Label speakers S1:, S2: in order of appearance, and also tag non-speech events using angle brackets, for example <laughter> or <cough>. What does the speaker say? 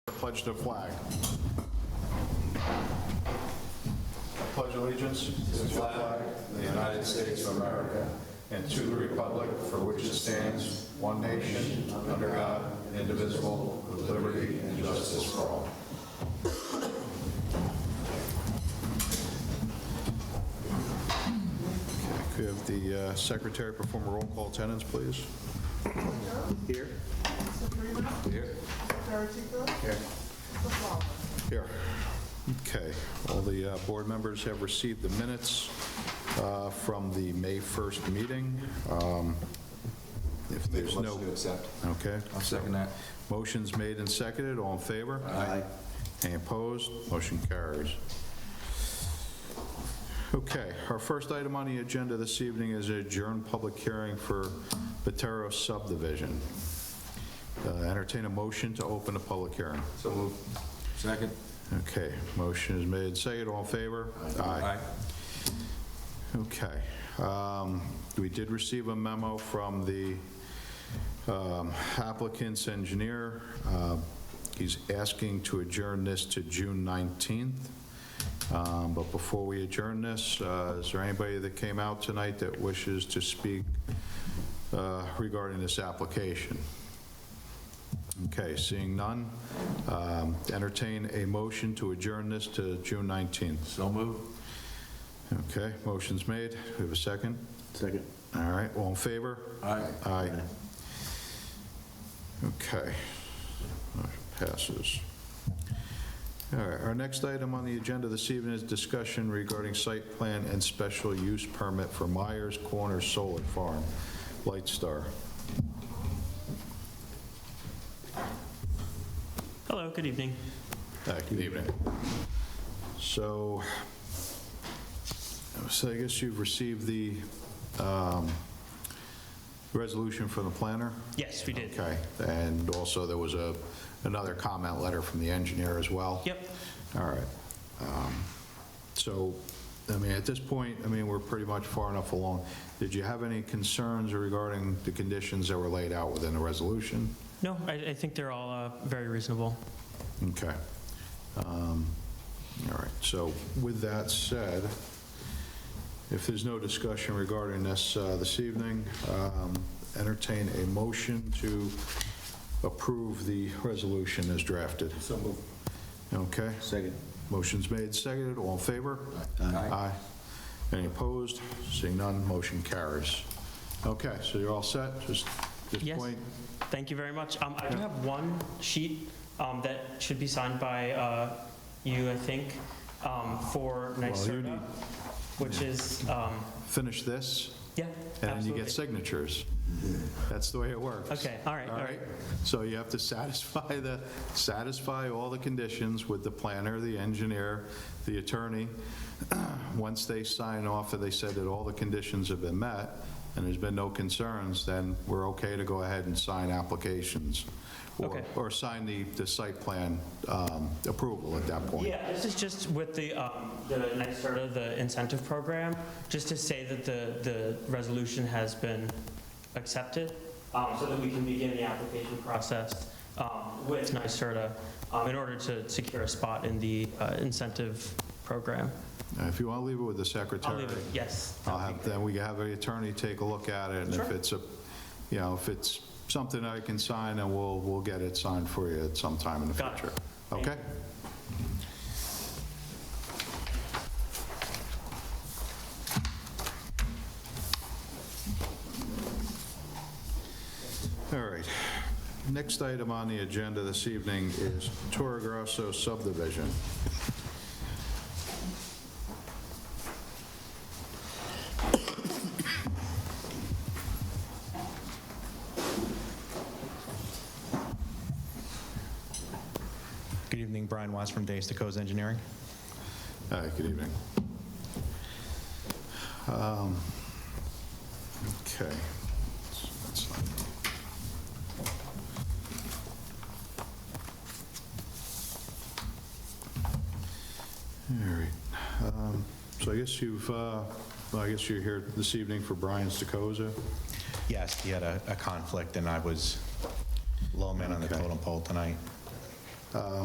S1: pledge their flag. Pledge allegiance to the flag of the United States of America and to the republic for which it stands, one nation, under God, indivisible, with liberty and justice for all. Could have the uh, secretary perform a roll call attendance, please?
S2: Here?
S1: Here. Here. Here. Okay. All the uh, board members have received the minutes uh, from the May 1st meeting. Um, If there's no...
S3: Motion to accept.
S1: Okay.
S3: I'll second that.
S1: Motion's made and seconded. All in favor?
S3: Aye.
S1: Any opposed? Motion carries. Okay, our first item on the agenda this evening is adjourned public hearing for Batero subdivision. Uh, Entertain a motion to open the public hearing.
S3: So moved. Second.
S1: Okay, motion is made, second, all in favor? Okay. um, We did receive a memo from the um, applicant's engineer. Uh, He's asking to adjourn this to June 19th. Um, But before we adjourn this, uh, is there anybody that came out tonight that wishes to speak uh, regarding this application? Okay, seeing none, um, entertain a motion to adjourn this to June 19th.
S3: So moved.
S1: Okay, motion's made. We have a second?
S2: Second.
S1: All right, all in favor?
S3: Aye.
S1: Aye. Okay. Motion Passes. All right, our next item on the agenda this evening is discussion regarding site plan and special use permit for Myers Corner Solar Farm, Light Star.
S4: Hello, good evening.
S1: Hi, Good evening. So, so I guess you've received the um, resolution from the planner?
S4: Yes, we did.
S1: Okay, and also there was a, another comment letter from the engineer as well?
S4: Yep.
S1: All right. Um, So, I mean, at this point, I mean, we're pretty much far enough along. Did you have any concerns regarding the conditions that were laid out within the resolution?
S4: No, I, I think they're all uh, very reasonable.
S1: Okay. Um, All right, so with that said, if there's no discussion regarding this uh, this evening, um, entertain a motion to approve the resolution as drafted.
S3: So moved.
S1: Okay?
S2: Second.
S1: Motion's made, seconded, all in favor?
S3: Aye.
S1: Any opposed? Seeing none, motion carries. Okay, so you're all set, just at this
S4: Yes.
S1: point?
S4: Thank you very much. Um, I do have one sheet um, that should be signed by uh, you, I think, um, for
S1: Well, you
S4: NYSERDA,
S1: need-
S4: which is, um,
S1: Finish this,
S4: yeah,
S1: and then you get
S4: absolutely.
S1: signatures. That's the way it works.
S4: Okay, all right, all right.
S1: So you have to <laughs> satisfy the, satisfy all the conditions with the planner, the engineer, the attorney. <clears throat> Once they sign off, and they said that all the conditions have been met, and there's been no concerns, then we're okay to go ahead and sign applications. or-
S4: Okay.
S1: Or sign the, the site plan um, approval at that point.
S4: Yeah, this is just with the, um, the NYSERDA, the incentive program, just to say that the, the resolution has been accepted, um, so that we can begin the application process um, with NYSERDA um, in order to secure a spot in the uh, incentive program.
S1: Uh, If you want to leave it with the secretary.
S4: I'll leave it, yes.
S1: I'll have, then we can have the attorney take a look at it, and if
S4: Sure.
S1: it's a, you know, if it's something I can sign, then we'll, we'll get it signed for you at some time in the
S4: Got it.
S1: future.
S4: Thank
S1: Okay? All right. Next item on the agenda this evening is Toro Grosso subdivision.
S5: Good evening, Brian Watts from Days to Co's Engineering.
S1: Hi, good evening. Um, Okay. That's not- All right. Um, So I guess you've, uh, well, I guess you're here this evening for Brian Stokoza?
S5: Yes, he had a a conflict, and I was low man on the
S1: Okay.
S5: totem pole tonight.